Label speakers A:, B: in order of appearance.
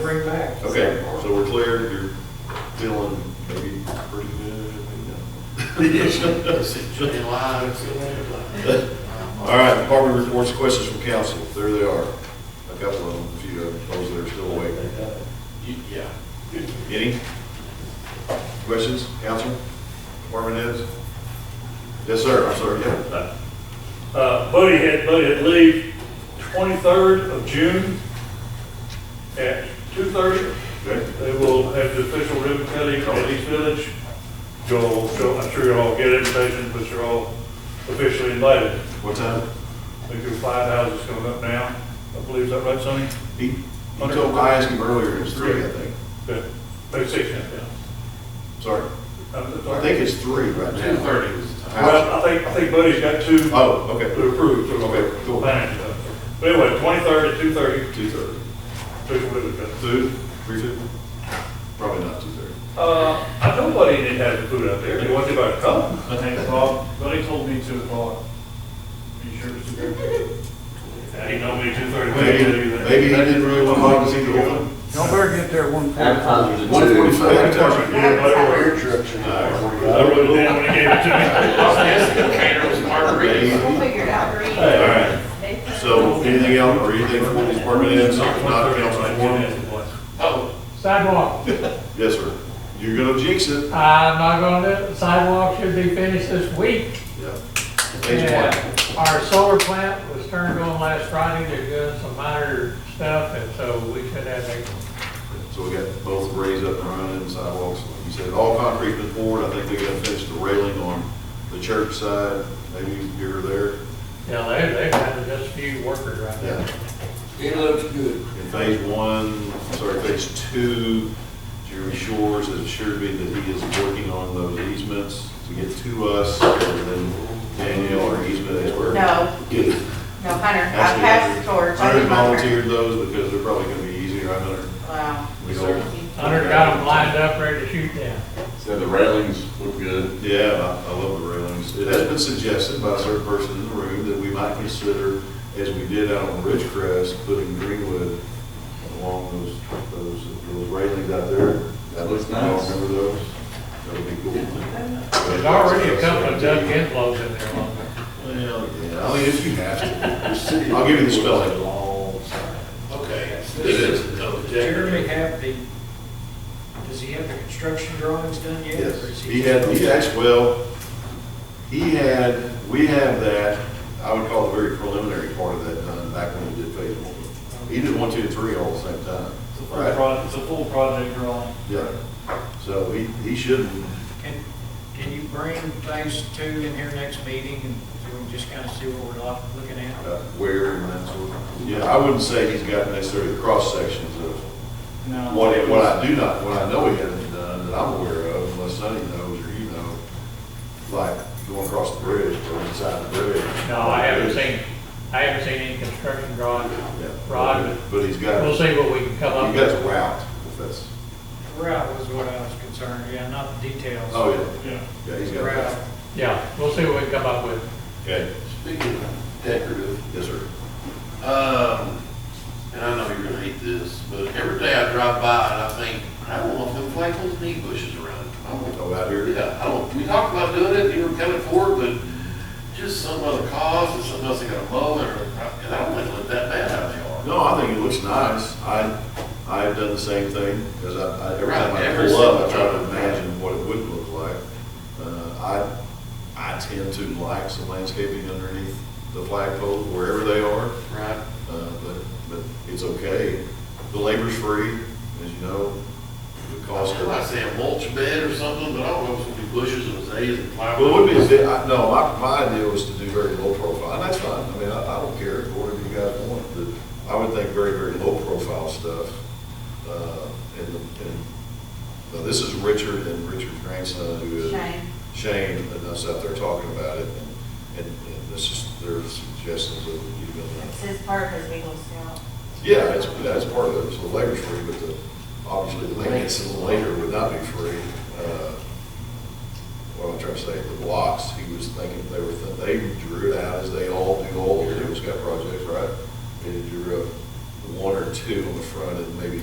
A: bring back.
B: Okay, so we're clear, you're feeling maybe pretty good,
C: July.
B: All right, department reports, questions from council, there they are. I've got one, a few of those that are still awake.
C: Yeah.
B: Any? Questions, council, department heads? Yes, sir, I'm sorry, yeah.
D: Uh, Buddy had, Buddy had leave twenty-third of June at two-thirty.
B: Okay.
D: They will have the official ribbon cutting on East Village. You'll, you'll- I'm sure you'll all get invitations, but you're all officially invited.
B: What time?
D: I think your five houses coming up now. I believe, is that right, Sonny?
B: He, he told, I asked him earlier, it was three, I think.
D: Yeah, maybe six now, yeah. Uh,
B: Sorry,
D: I'm
B: I
D: sorry.
B: think it's three right
C: Two
B: now.
C: thirty was the time.
D: Well, I think, I think Buddy's got two
B: Oh, okay,
D: to approve, so
B: Okay, cool.
D: we'll manage that. But anyway, twenty-third at two-thirty,
B: two thirty.
D: official ribbon cutting.
B: Two, three fifty? Probably not two thirty.
D: Uh, I know Buddy didn't have the food out there. You want to buy a cup?
E: I think Bob, Buddy told me two o'clock. Are you sure it's two thirty?
D: He know me two thirty.
B: Maybe, maybe he didn't really want Mike to see the one.
F: Y'all better get there at one point.
C: Advertisers
B: One forty-five.
D: I wrote it down when he gave it to me.
C: I was asking the caterer was margaritas.
G: We'll figure it out, Green.
B: All right, so anything else, or anything from these department heads, not council forum?
C: Oh,
E: Sidewalk,
B: Yes, sir. You're gonna jinx it.
E: I'm not gonna do it, sidewalk should be finished this week.
B: Yeah. Stage one.
E: Yeah. Our solar plant was turned on last Friday, they're doing some minor stuff, and so we should have that.
B: So we got both raised up and running sidewalks. Like you said, all concrete been poured. I think they gotta finish the railing on the church side, maybe here or there.
E: Yeah, they, they have just a few workers right
B: Yeah.
E: now.
C: it looks good.
B: In phase one, sorry, phase two, Jeremy Shores has assured me that he is working on those easements to get to us, and then Danielle, our easement expert.
G: No.
B: Get-
G: No, Hunter, I
B: actually,
G: passed the torch. I
B: Hunter
G: didn't want her-
B: volunteered those because they're probably gonna be easier, I Hunter.
G: Wow.
B: We don't-
E: Hunter got them lined up, ready to shoot them.
H: So the railings look good.
B: Yeah, I I love the railings. It has been suggested by a certain person in the room that we might consider, as we did out on Ridgecrest, putting greenwood along those, those, those railings out there.
H: That looks
B: Y'all
H: nice.
B: Remember those? That would be cool.
E: There's already a couple of Doug Enflows in there. along
B: Well, yeah, I mean, if you have to. I'll give you the spelling.
C: Okay. This is, oh,
A: Jeremy have the, does he have the construction drawings done yet?
B: Yes,
A: or is
B: he had, he actually, well, he had, we have that, I would call the very preliminary part of that done back when we did phase one. He did one, two, and three all at the same time.
E: It's a
B: full pro-
E: it's a full project drawing.
B: Yeah, so he, he shouldn't,
A: Can, can you bring phase two in here next meeting and so we can just kind of see what we're lo- looking at?
B: uh, where and that sort of. Yeah, I wouldn't say he's got necessarily the cross sections of
A: No.
B: what, it- what I do not, what I know he hasn't done that I'm aware of, unless Sonny knows or you know, like going across the bridge or inside the bridge.
E: No, I haven't seen, I haven't seen any construction drawings.
B: Yeah.
E: Rod,
B: But he's got.
E: We'll see what we can come up
B: You got
E: with.
B: the route, if that's,
A: Route was what I was concerned, yeah, not the details.
B: oh, yeah,
D: Yeah.
B: yeah, he's got
A: Route.
B: that.
E: Yeah, we'll see what we can come up with.
B: Okay,
C: Speaking of decorative,
B: yes, sir.
C: um, and I know you're gonna hate this, but every day I drive by and I think, I don't want them flagpoles knee bushes around. I want
B: Go out here.
C: Yeah, I don't, we talked about doing it, you were coming forward, but just some other cause, and something else they gotta mow, or, and I don't think it looked that bad how they are.
B: No, I think it looks nice. I, I've done the same thing, because I, I, every time I
C: Every
B: pull up, I try
C: single
B: to
C: time.
B: imagine what it would look like. Uh, I, I tend to like some landscaping underneath the flagpole, wherever they are,
C: Right.
B: uh, but, but it's okay. The labor's free, as you know, the
C: I was
B: cost of
C: gonna say a mulch bed or something, but I don't know if it's gonna be bushes and azaleas and flowers.
B: Well, it would be, a bit- I- no, my, my idea was to do very low profile, and that's fine, I mean, I, I don't care, whatever you guys want, but I would think very, very low profile stuff. uh, And, and, now, this is Richard and Richard's grandson, who is.
G: Shane.
B: Shane, and us out there talking about it, and, and and this is, their suggestions of, you uh, know,
G: It's his part of his legal seal.
B: yeah, that's, that's part of it, so the labor's free, but the, obviously, the maintenance of the labor would not be free. Uh, What I'm trying to say, the blocks, he was thinking, they were, they drew it out as they all do all the Eagle Scout projects, right? And he drew up one or two on the front and maybe